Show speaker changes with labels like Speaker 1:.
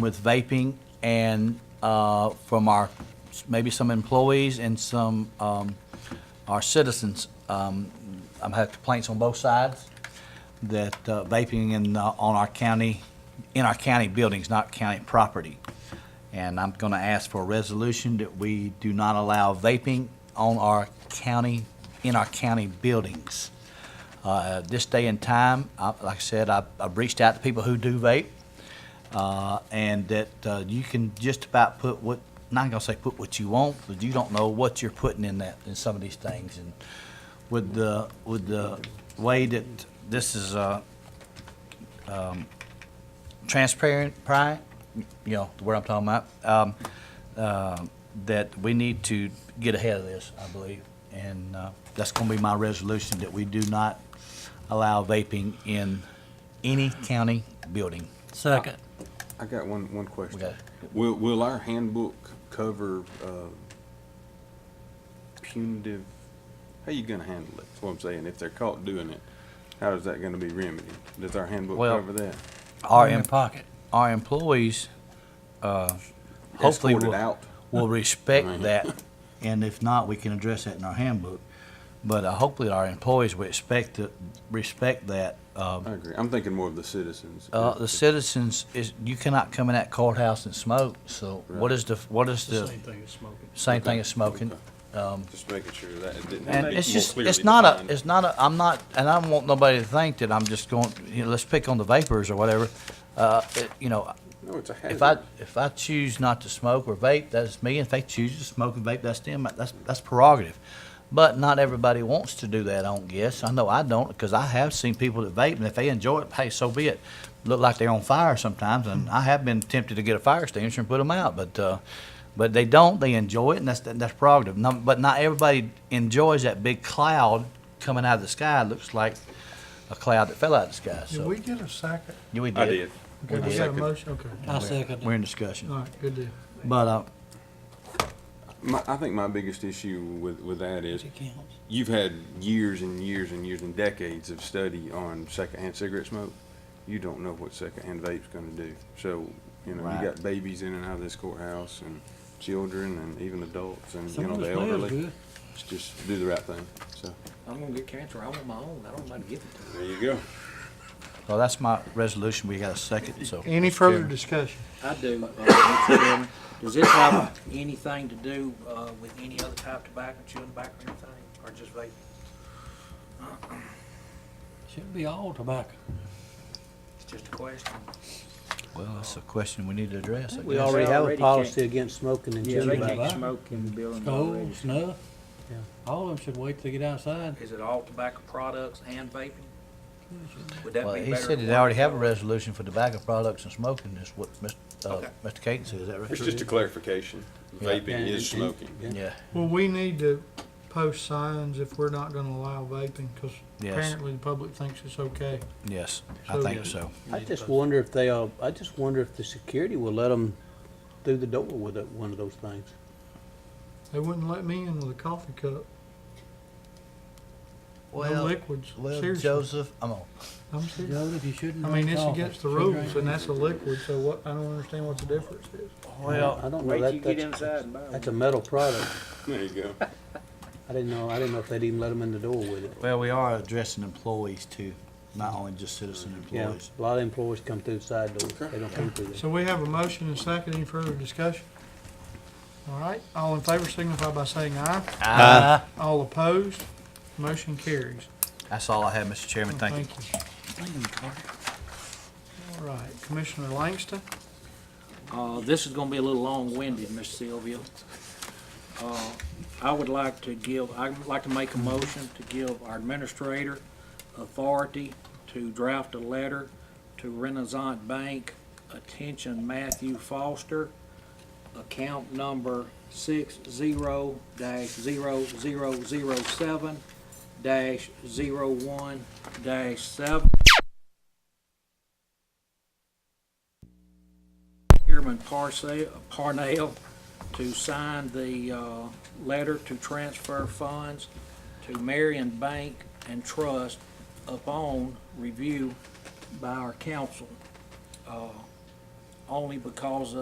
Speaker 1: with vaping and uh, from our, maybe some employees and some, um, our citizens. Um, I've had complaints on both sides that uh, vaping in, uh, on our county, in our county buildings, not county property. And I'm going to ask for a resolution that we do not allow vaping on our county, in our county buildings. Uh, This day and time, I- like I said, I- I've reached out to people who do vape, uh, and that uh, you can just about put what, not gonna say put what you want, but you don't know what you're putting in that, in some of these things. And with the, with the way that this is uh, um, transparent, pri- you know, the word I'm talking about, um, uh, that we need to get ahead of this, I believe. And uh, that's gonna be my resolution, that we do not allow vaping in any county building.
Speaker 2: Second.
Speaker 3: I got one, one question.
Speaker 1: Okay.
Speaker 3: Will, will our handbook cover, uh, punitive, how you gonna handle it? That's what I'm saying. If they're caught doing it, how is that gonna be remedied? Does our handbook
Speaker 1: Well,
Speaker 3: cover that?
Speaker 1: Our,
Speaker 2: In
Speaker 1: em-
Speaker 2: your pocket.
Speaker 1: our employees, uh, hopefully
Speaker 3: Escorted
Speaker 1: will,
Speaker 3: out?
Speaker 1: will
Speaker 3: Right.
Speaker 1: respect that. And if not, we can address that in our handbook. But uh, hopefully our employees will expect to, respect that. Um,
Speaker 3: I agree. I'm thinking more of the citizens.
Speaker 1: uh, the citizens is, you cannot come in that courthouse and smoke, so what
Speaker 3: Right.
Speaker 1: is the, what is the,
Speaker 4: thing as smoking.
Speaker 1: same thing as smoking? um,
Speaker 3: Just making sure that it didn't.
Speaker 1: And
Speaker 3: make
Speaker 1: it's
Speaker 3: more
Speaker 1: just,
Speaker 3: clearly
Speaker 1: it's not
Speaker 3: defined.
Speaker 1: a, it's not a, I'm not, and I don't want nobody to think that I'm just going, you know, let's pick on the vapors or whatever. Uh, it- you know,
Speaker 3: No, it's a
Speaker 1: If I,
Speaker 3: hazard.
Speaker 1: if I choose not to smoke or vape, that's me. If they choose to smoke and vape, that's them. That's, that's prerogative. But not everybody wants to do that, I don't guess. I know I don't, because I have seen people that vape, and if they enjoy it, hey, so be it. Look like they're on fire sometimes, and I have been tempted to get a fire extinguisher and put them out, but, uh, but they don't. They enjoy it, and that's, that's prerogative. No, but not everybody enjoys that big cloud coming out of the sky. It looks like a cloud that fell out of the sky,
Speaker 4: Did
Speaker 1: so.
Speaker 4: we get a second?
Speaker 1: Yeah, we
Speaker 3: I did.
Speaker 4: Okay, we got a
Speaker 3: Second.
Speaker 4: motion, okay.
Speaker 2: I second
Speaker 1: We're
Speaker 2: it.
Speaker 1: in discussion.
Speaker 4: All right, good deal.
Speaker 1: But, uh,
Speaker 3: My, I think my biggest issue with, with that is
Speaker 2: It counts.
Speaker 3: you've had years and years and years and decades of study on secondhand cigarette smoke. You don't know what secondhand vape's going to do. So, you know,
Speaker 1: Right.
Speaker 3: you got babies in and out of this courthouse and children and even adults and,
Speaker 2: Some
Speaker 3: you know,
Speaker 2: of it
Speaker 3: the
Speaker 2: smells
Speaker 3: elderly.
Speaker 2: good.
Speaker 3: It's Just do the right thing. So,
Speaker 5: I'm gonna get cancer. I want my own. I don't mind giving it to
Speaker 3: there you go.
Speaker 1: Well, that's my resolution. We got a second, so.
Speaker 4: Any further discussion?
Speaker 5: you. I do. uh, Mr. Chairman. Does this have anything to do, uh, with any other type of tobacco, chewing tobacco or anything, or just vape?
Speaker 2: Should be all tobacco.
Speaker 5: It's just a question.
Speaker 1: Well, that's a question we need to address, I
Speaker 6: We
Speaker 1: guess.
Speaker 6: already have a
Speaker 5: Already
Speaker 6: policy against smoking and
Speaker 5: Yeah,
Speaker 6: chewing
Speaker 5: they can't
Speaker 6: tobacco.
Speaker 2: tobacco.
Speaker 5: smoke in the building already.
Speaker 2: Gold, snuff.
Speaker 6: Yeah.
Speaker 2: All of them should wait till they get outside.
Speaker 5: Is it all tobacco products and vaping? Would that be
Speaker 1: Well,
Speaker 5: better?
Speaker 1: he said that
Speaker 5: than
Speaker 1: they
Speaker 5: one?
Speaker 1: already have a resolution for tobacco products and smoking, is what Mr. uh,
Speaker 5: Okay.
Speaker 1: Mr. Caton said, is that right?
Speaker 3: It's just a clarification.
Speaker 6: Yeah,
Speaker 3: Vaping
Speaker 6: and-
Speaker 3: is smoking.
Speaker 6: and-
Speaker 1: Yeah,
Speaker 4: Well, we need to post signs if we're not gonna allow vaping, because
Speaker 1: Yes.
Speaker 4: apparently the public thinks it's okay.
Speaker 1: yes, I
Speaker 4: So-
Speaker 1: think so.
Speaker 6: I just wonder if they, uh, I just wonder if the security will let them through the door with a- one of those things.
Speaker 4: They wouldn't let me in with a coffee cup, no
Speaker 1: Well,
Speaker 4: liquids,
Speaker 1: well,
Speaker 4: seriously.
Speaker 1: Joseph, I'm on.
Speaker 4: I'm serious.
Speaker 2: Joseph, you shouldn't
Speaker 4: I mean,
Speaker 2: drink
Speaker 4: it's
Speaker 2: coffee.
Speaker 4: against the
Speaker 2: You should
Speaker 4: rules,
Speaker 2: drink-
Speaker 4: and that's a liquid, so what, I don't understand what the difference is.
Speaker 6: I don't know,
Speaker 5: Wait till you
Speaker 6: that,
Speaker 5: get
Speaker 6: that's,
Speaker 5: inside and buy
Speaker 6: that's a
Speaker 5: one.
Speaker 6: metal product.
Speaker 3: There you go.
Speaker 6: I didn't know, I didn't know if they'd even let them in the door with it.
Speaker 1: Well, we are addressing employees too, not only just citizen
Speaker 6: Yeah,
Speaker 1: employees.
Speaker 6: a lot of employees come through the side doors, they don't come through there.
Speaker 4: So we have a motion and second, any further discussion? All right, all in favor signify by saying aye.
Speaker 1: Ah,
Speaker 4: All opposed, motion carries.
Speaker 1: That's all I have, Mr. Chairman, thank you.
Speaker 4: All right, Commissioner Langston,
Speaker 5: Uh, this is gonna be a little long-winded, Miss Sylvia. Uh, I would like to give, I'd like to make a motion to give our administrator authority to draft a letter to Renaissance Bank, attention Matthew Foster, account number six zero dash zero zero zero seven dash zero one dash seven. Chairman Parsa- Parnell to sign the uh, letter to transfer funds to Marion Bank and Trust upon review by our council. Uh, only because